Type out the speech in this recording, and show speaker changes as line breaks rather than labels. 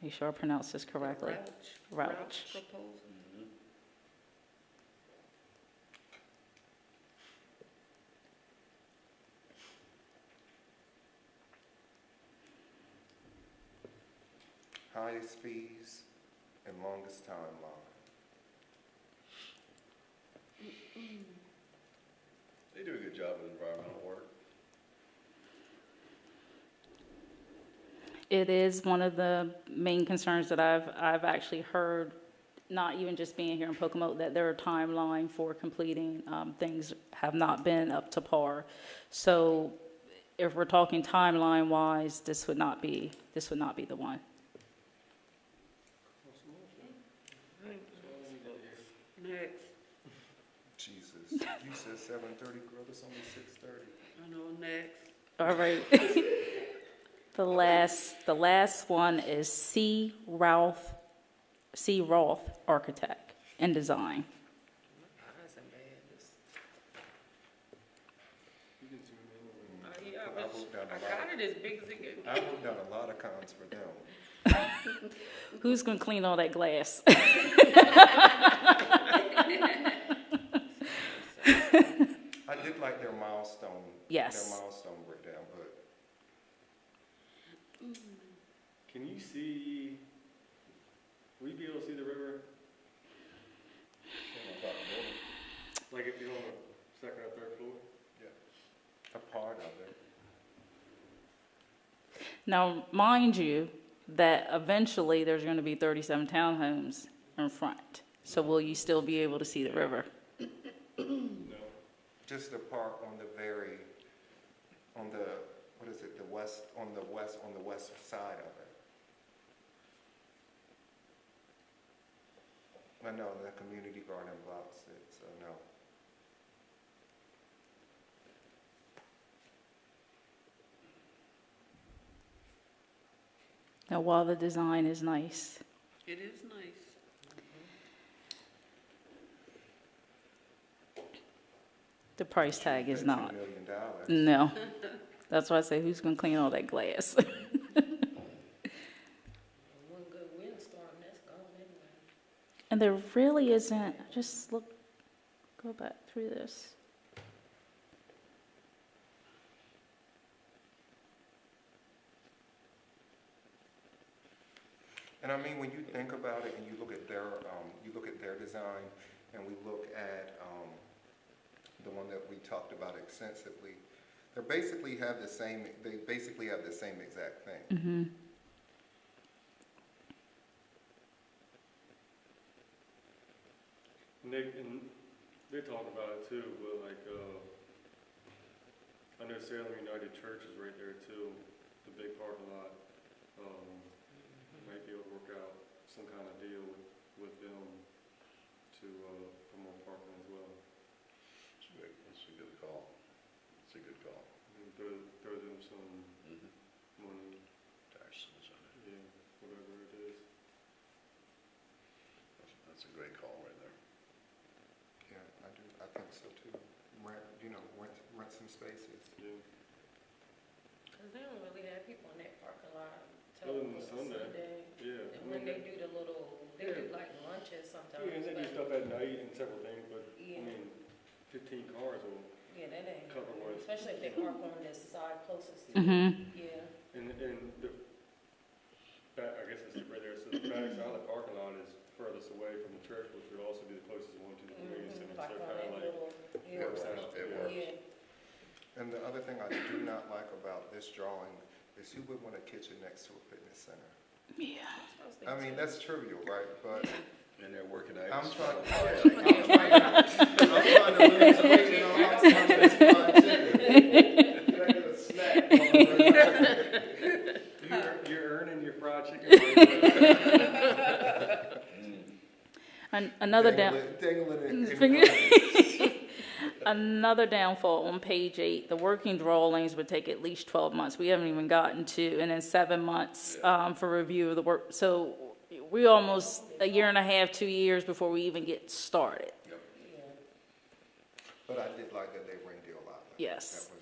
You sure I pronounced this correctly?
Roach.
Roach.
proposal.
highest fees and longest timeline.
They do a good job with environmental work.
It is one of the main concerns that I've, I've actually heard, not even just being here in Pocomoke, that their timeline for completing um, things have not been up to par. So if we're talking timeline-wise, this would not be, this would not be the one.
Mm-hmm.
Next,
Jesus, you said seven thirty, girl, it's only six thirty.
I know, next.
All right. The last, the last one is C. Ralph, C. Roth Architect and Design.
Mine's embarrassed. Uh,
Oh,
yeah,
I
but
wrote down a
I
lot.
got it as big as it could.
I wrote down a lot of cons for them.
Who's gonna clean all that glass?
I did like their milestone.
Yes.
Their milestone breakdown, but
Can you see, will you be able to see the river? Like if you're on the second or third floor?
a part of it.
Now, mind you, that eventually there's gonna be thirty-seven townhomes in front. So will you still be able to see the river?
No.
Just the part on the very, on the, what is it, the west, on the west, on the west side of it. I know, the community garden blocks it, so no.
Now, while the design is nice,
It is nice.
the price tag is
$13
not.
Million dollars.
No. That's why I say, who's gonna clean all that glass?
One good windstorm, that's gone anyway.
And there really isn't, just look, go back through this.
And I mean, when you think about it and you look at their, um, you look at their design and we look at, um, the one that we talked about extensively, they basically have the same, they basically have the same exact thing.
Mm-hmm.
And they, and they're talking about it too, but like, uh, I know Salem United Church is right there too, the big parking lot. Um, might be able to work out some kind of deal with, with them to, uh, promote parking as well.
It's a good- It's a good call. It's a good call.
And throw, throw them some
Mhm.
money,
Taxes on it.
yeah, whatever it is.
That's- That's a great call right there.
Yeah, I do, I think so too. Rent, you know, rent, rent some spaces.
Yeah,
Cause they don't really have people in that parking lot.
Other than Sunday. yeah.
And
I mean,
when they do the little, they do
Yeah.
like lunches sometimes,
Yeah, and they do
but,
stuff at night and several things, but, I
Yeah.
mean, fifteen cars will,
yeah, that ain't.
Cover what?
Especially if they park on this side closest to, it.
Mm-hmm.
yeah.
and, and the, back, I guess it's right there, so the back side of the parking lot is furthest away from the church, which would also be the closest one to the community
Mhm.
center, so
Like on that
kinda like,
little,
It works,
yeah,
it
Yeah.
works.
yeah.
And the other thing I do not like about this drawing is who would want a kitchen next to a fitness center?
Yeah.
was
I
thinking
mean, that's trivial, right? But
And they're working out.
I'm trying, I'm
Yeah.
trying, I'm trying to lose weight and all that stuff, but it's fun too. Can I get a snack?
You're, you're earning your fried chicken.
An- another down.
Dangle it- dangle it in- in
Finger-
front.
Another downfall on page eight, the working drawings would take at least twelve months. We haven't even gotten to, and then seven months, um, for review of the work. So we almost, a year and a half, two years before we even get started.
But I did like that they ringed you a lot.
Yes.
That was